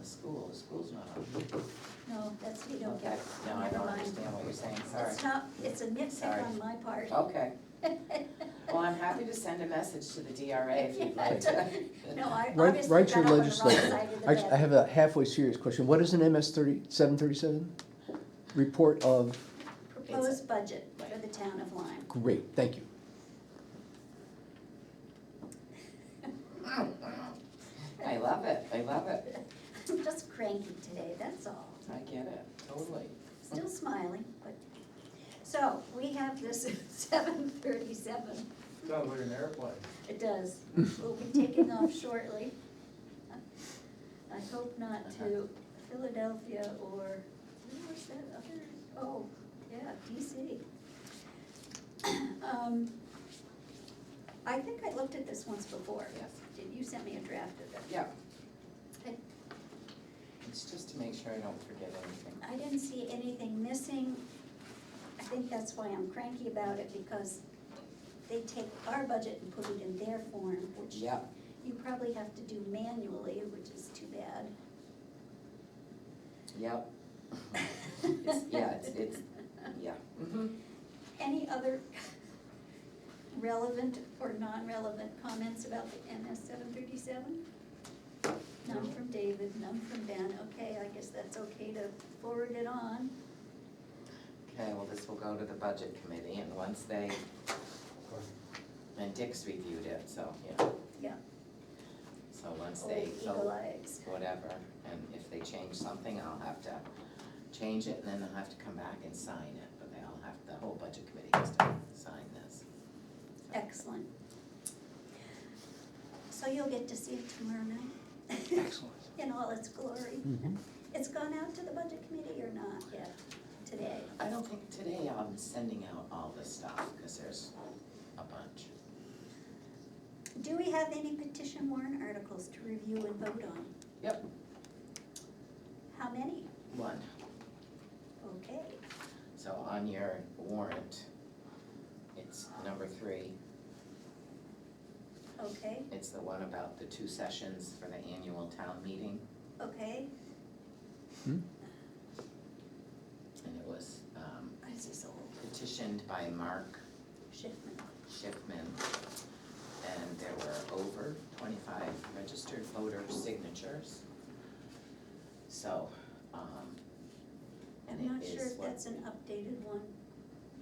the school, the school's not on. No, that's, you don't Okay, get, no, I never don't mind. understand what you're saying, sorry. It's not, it's a Sorry. nitpick on my part. Okay, well, I'm happy to send a message to the DRA if you'd like to. No, I Write- obviously got write up your on the wrong legislature. side of the I, I bed. have a halfway serious question. What is an MS thirty, seven thirty-seven? Report of, Proposed budget for the town of Lyme. great, thank you. I love it, I love it, I'm just cranky today, that's all. I get it, totally. Still smiling, but, so, we have this seven thirty-seven. Sounds like an airplane. It does. We'll be taking off shortly. I hope not to Philadelphia or, where was that other, oh, yeah, DC. Um, I think I looked at this once before. Yes. Did You sent me a draft of it. Yeah, I- it's just to make sure I don't forget anything. I didn't see anything missing. I think that's why I'm cranky about it, because they take our budget and put it in their form, which Yeah, you probably have to do manually, which is too bad. yep. It's- Yeah, it's, it's, yeah. Mhm. Any other relevant or non-relevant comments about the MS seven thirty-seven? None from David, none from Ben, okay, I guess that's okay to forward it on. Okay, well, this will go to the budget committee and once they, and Dick's reviewed it, so, yeah, Yeah, so once old they eagle vote, eyes. whatever, and if they change something, I'll have to change it and then I'll have to come back and sign it, but they all have, the whole budget committee has to sign this. Excellent. So you'll get to see it tomorrow night Excellent. in all its glory. Mm-hmm. Mhm. It's gone out to the budget committee or not yet today? I don't think today I'm sending out all this stuff, cause there's a bunch. Do we have any petition warrant articles to review and vote on? Yep. How many? One, Okay, so on your warrant, it's number three, okay, It's the one about the two sessions for the annual town meeting, okay. and it was um, This is old. petitioned by Mark Shipman. Shipman. And there were over twenty-five registered voter signatures. So, um, and I'm not it sure is if what, that's an updated one,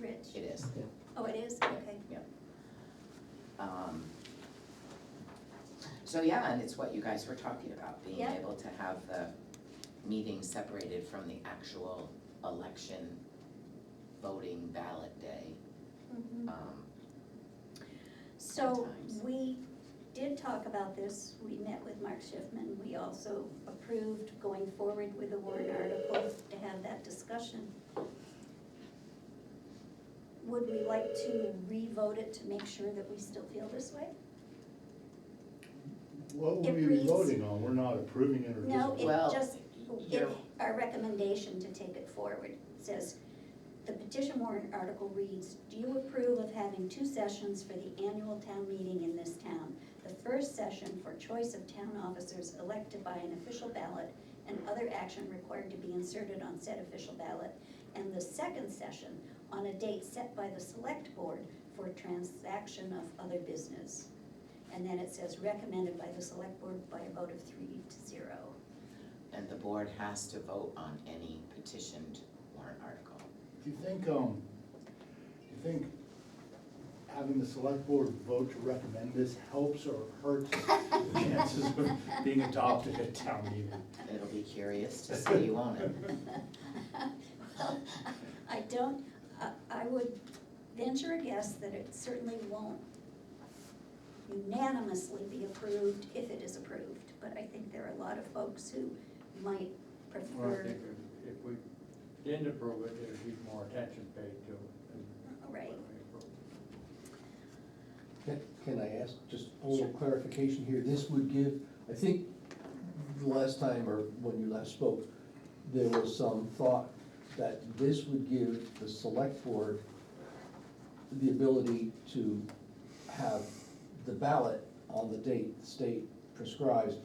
it Rich. is, Oh, it is, okay. um. So, yeah, and it's what you guys were talking about, being Yeah. able to have the meeting separated from the actual election voting ballot day. Mhm. Um, So times. we did talk about this, we met with Mark Schiffman, we also approved going forward with the warrant article to have that discussion. Would we like to re-vote it to make sure that we still feel this way? What It will we be reads- voting on? We're not approving it or No, disapproving? Well, it just, it, you're- our recommendation to take it forward says, the petition warrant article reads, do you approve of having two sessions for the annual town meeting in this town? The first session for choice of town officers elected by an official ballot and other action required to be inserted on said official ballot. And the second session on a date set by the select board for transaction of other business. And then it says recommended by the select board by a vote of three to zero. And the board has to vote on any petitioned warrant article. Do you think, um, do you think having the select board vote to recommend this helps or hurts the chances of being adopted at town meeting? It'll be curious to see you on it. Well, I don't, I, I would venture a guess that it certainly won't unanimously be approved if it is approved, but I think there are a lot of folks who might Well, I prefer, think if- if we didn't approve it, there'd be more attention paid to it than right? when we approved it. Can can I ask just a little clarification here? This would give, I think, the last time or when you last spoke, there was some thought that this would give the select board the ability to have the ballot on the date the state prescribes,